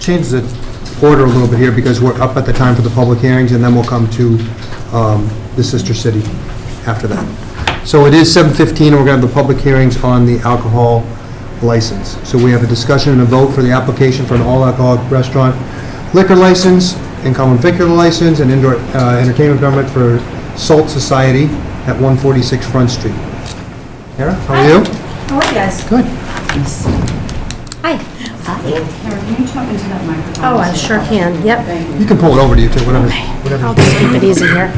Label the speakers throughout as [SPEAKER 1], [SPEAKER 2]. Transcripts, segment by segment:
[SPEAKER 1] change the order a little bit here, because we're up at the time for the public hearings, and then we'll come to um, the sister city after that. So it is 7:15, and we're going to have the public hearings on the alcohol license. So we have a discussion and a vote for the application for an all-alcoholic restaurant liquor license, and common vicular license, and indoor uh, entertainment permit for Salt Society at 146 Front Street. Kara, how are you?
[SPEAKER 2] How are you guys?
[SPEAKER 1] Good.
[SPEAKER 3] Hi.
[SPEAKER 2] Karen, can you talk into that microphone?
[SPEAKER 3] Oh, I sure can, yep.
[SPEAKER 2] Thank you.
[SPEAKER 1] You can pull it over to you, too, whatever.
[SPEAKER 3] I'll just keep it easy here.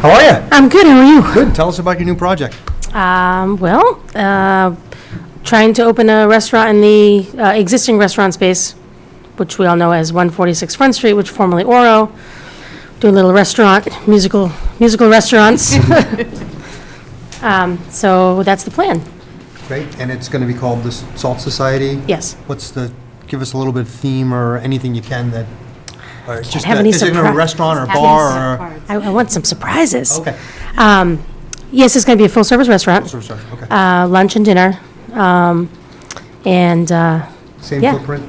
[SPEAKER 1] How are you?
[SPEAKER 3] I'm good, how are you?
[SPEAKER 1] Good. Tell us about your new project.
[SPEAKER 3] Um, well, uh, trying to open a restaurant in the uh, existing restaurant space, which we all know as 146 Front Street, which formerly Oro. Doing a little restaurant, musical, musical restaurants. Um, So that's the plan,
[SPEAKER 1] Great. And it's going to be called the Salt Society?
[SPEAKER 3] yes.
[SPEAKER 1] What's the, give us a little bit of theme or anything you can that, or it's just,
[SPEAKER 3] have
[SPEAKER 1] a-
[SPEAKER 3] any
[SPEAKER 1] is it a
[SPEAKER 3] surpri-
[SPEAKER 1] restaurant or
[SPEAKER 2] Happy to
[SPEAKER 1] bar or?
[SPEAKER 2] support.
[SPEAKER 3] I I want some surprises.
[SPEAKER 1] Okay.
[SPEAKER 3] Um, Yes, it's going to be a full-service restaurant,
[SPEAKER 1] Sorry, sorry, okay.
[SPEAKER 3] uh, lunch and dinner, um, and uh,
[SPEAKER 1] Same
[SPEAKER 3] yeah.
[SPEAKER 1] footprint?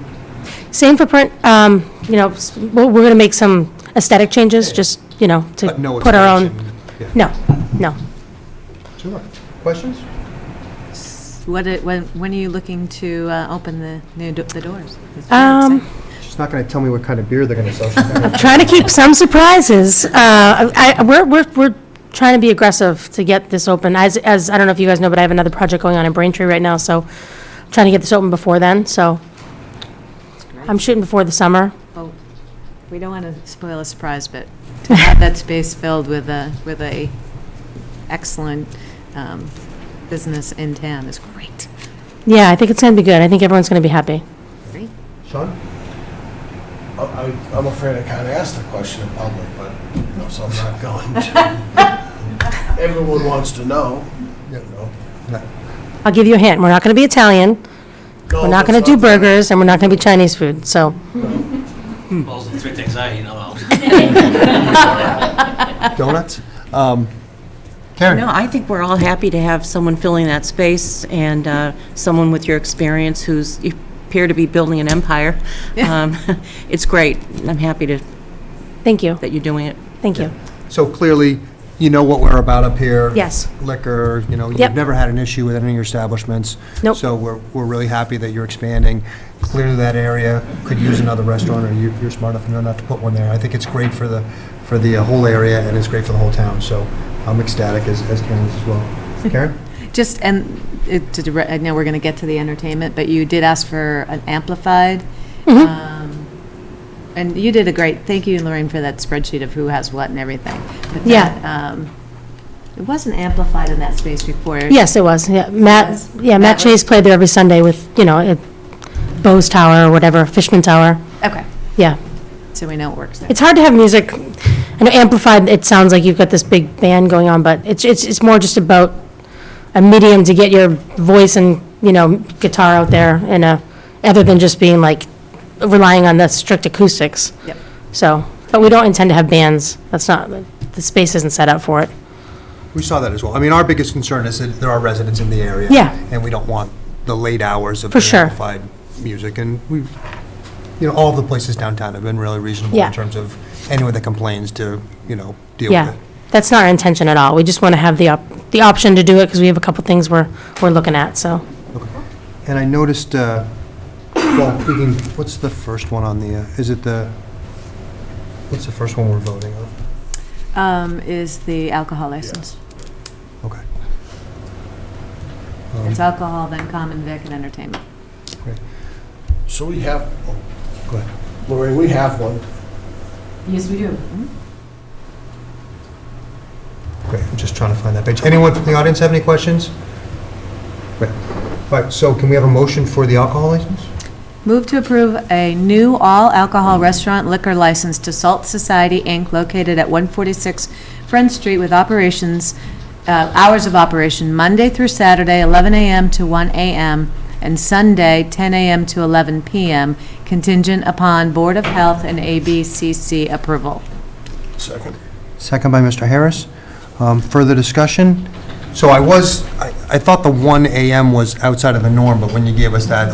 [SPEAKER 3] Same footprint, um, you know, s- we're, we're gonna make some aesthetic changes, just, you know, to
[SPEAKER 1] But no
[SPEAKER 3] put our own.
[SPEAKER 1] expansion, yeah.
[SPEAKER 3] No, no.
[SPEAKER 1] Sure. Questions?
[SPEAKER 4] What, it- when, when are you looking to uh, open the new, do- the doors? That's what I'm
[SPEAKER 3] Um,
[SPEAKER 4] saying.
[SPEAKER 1] She's not going to tell me what kind of beer they're going to sell. She's gonna-
[SPEAKER 3] trying to keep some surprises. Uh, I, I- we're, we're, we're trying to be aggressive to get this open. As, as, I don't know if you guys know, but I have another project going on in Braintree right now, so trying to get this open before then, so. I'm shooting before the summer.
[SPEAKER 4] Well, Oh, We don't want to spoil a surprise, but to have that space filled with a, with a excellent um, business in town is great.
[SPEAKER 3] Yeah, I think it's gonna be good. I think everyone's gonna be happy.
[SPEAKER 4] Great.
[SPEAKER 1] Sean?
[SPEAKER 5] I- I- I'm afraid I kind of asked the question in public, but, you know, so I'm not going to. Everyone wants to know, you know.
[SPEAKER 3] I'll give you a hint. We're not gonna be Italian, we're not gonna do burgers, and we're not gonna be Chinese food, so.
[SPEAKER 6] Those are the three things I ain't allowed.
[SPEAKER 1] Donuts? Um, Karen?
[SPEAKER 7] No, I think we're all happy to have someone filling that space and uh, someone with your experience who's, you appear to be building an empire. Um, It's great. I'm happy to,
[SPEAKER 3] Thank you,
[SPEAKER 7] that you're doing it.
[SPEAKER 3] thank you.
[SPEAKER 1] So clearly, you know what we're about up here.
[SPEAKER 3] Yes.
[SPEAKER 1] Liquor, you know, you've
[SPEAKER 3] Yep.
[SPEAKER 1] never had an issue with any of your establishments.
[SPEAKER 3] Nope.
[SPEAKER 1] So we're, we're really happy that you're expanding. Clearly, that area could use another restaurant, or you- you're smart enough to know not to put one there. I think it's great for the, for the uh, whole area, and it's great for the whole town, so I'm ecstatic, as as Karen is as well. Karen?
[SPEAKER 4] Just, and it, to dire- I know we're going to get to the entertainment, but you did ask for an amplified.
[SPEAKER 3] Mm-hmm.
[SPEAKER 4] um, And you did a great, thank you, Lorraine, for that spreadsheet of who has what and everything. But
[SPEAKER 3] Yeah.
[SPEAKER 4] that, um, It wasn't amplified in that space before.
[SPEAKER 3] Yes, it was, yeah. Matt,
[SPEAKER 4] was.
[SPEAKER 3] yeah, Matt
[SPEAKER 4] That was-
[SPEAKER 3] Chase played there every Sunday with, you know, at Bose Tower or whatever, Fishman Tower,
[SPEAKER 4] Okay,
[SPEAKER 3] yeah.
[SPEAKER 4] so we know it works there.
[SPEAKER 3] It's hard to have music, I know amplified, it sounds like you've got this big band going on, but it's, it's, it's more just about a medium to get your voice and, you know, guitar out there in a, other than just being like, relying on the strict acoustics.
[SPEAKER 4] Yep.
[SPEAKER 3] So, but we don't intend to have bands, that's not, the space isn't set up for it.
[SPEAKER 1] We saw that as well. I mean, our biggest concern is that there are residents in the area.
[SPEAKER 3] Yeah.
[SPEAKER 1] And we don't want the late hours of
[SPEAKER 3] For sure.
[SPEAKER 1] amplified music. And we, you know, all the places downtown have been really reasonable
[SPEAKER 3] Yeah.
[SPEAKER 1] in terms of anyone that complains to, you know, deal with
[SPEAKER 3] Yeah,
[SPEAKER 1] it.
[SPEAKER 3] that's not our intention at all. We just want to have the, op- the option to do it because we have a couple things we're, we're looking at, so.
[SPEAKER 1] And I noticed, uh, well, we can- what's the first one on the, uh, is it the, what's the first one we're voting on?
[SPEAKER 4] Um, Is the alcohol license.
[SPEAKER 1] Okay. Um,
[SPEAKER 4] It's alcohol, then common vic, and entertainment.
[SPEAKER 5] So we have, oh,
[SPEAKER 1] Go ahead.
[SPEAKER 5] Lorraine, we have one.
[SPEAKER 2] Yes, we do.
[SPEAKER 1] Great, I'm just trying to find that page. Anyone from the audience have any questions? Great. All right, so can we have a motion for the alcohol license?
[SPEAKER 4] Move to approve a new all-alcohol restaurant liquor license to Salt Society, Inc., located at 146 Front Street with operations, uh, hours of operation Monday through Saturday, 11 a.m. to 1 a.m., and Sunday, 10 a.m. to 11 p.m., contingent upon Board of Health and ABCC approval.
[SPEAKER 5] Second.
[SPEAKER 1] Second by Mr. Harris. Um, Further discussion? So I was, I I thought the 1 AM was outside of the norm, but when you gave us that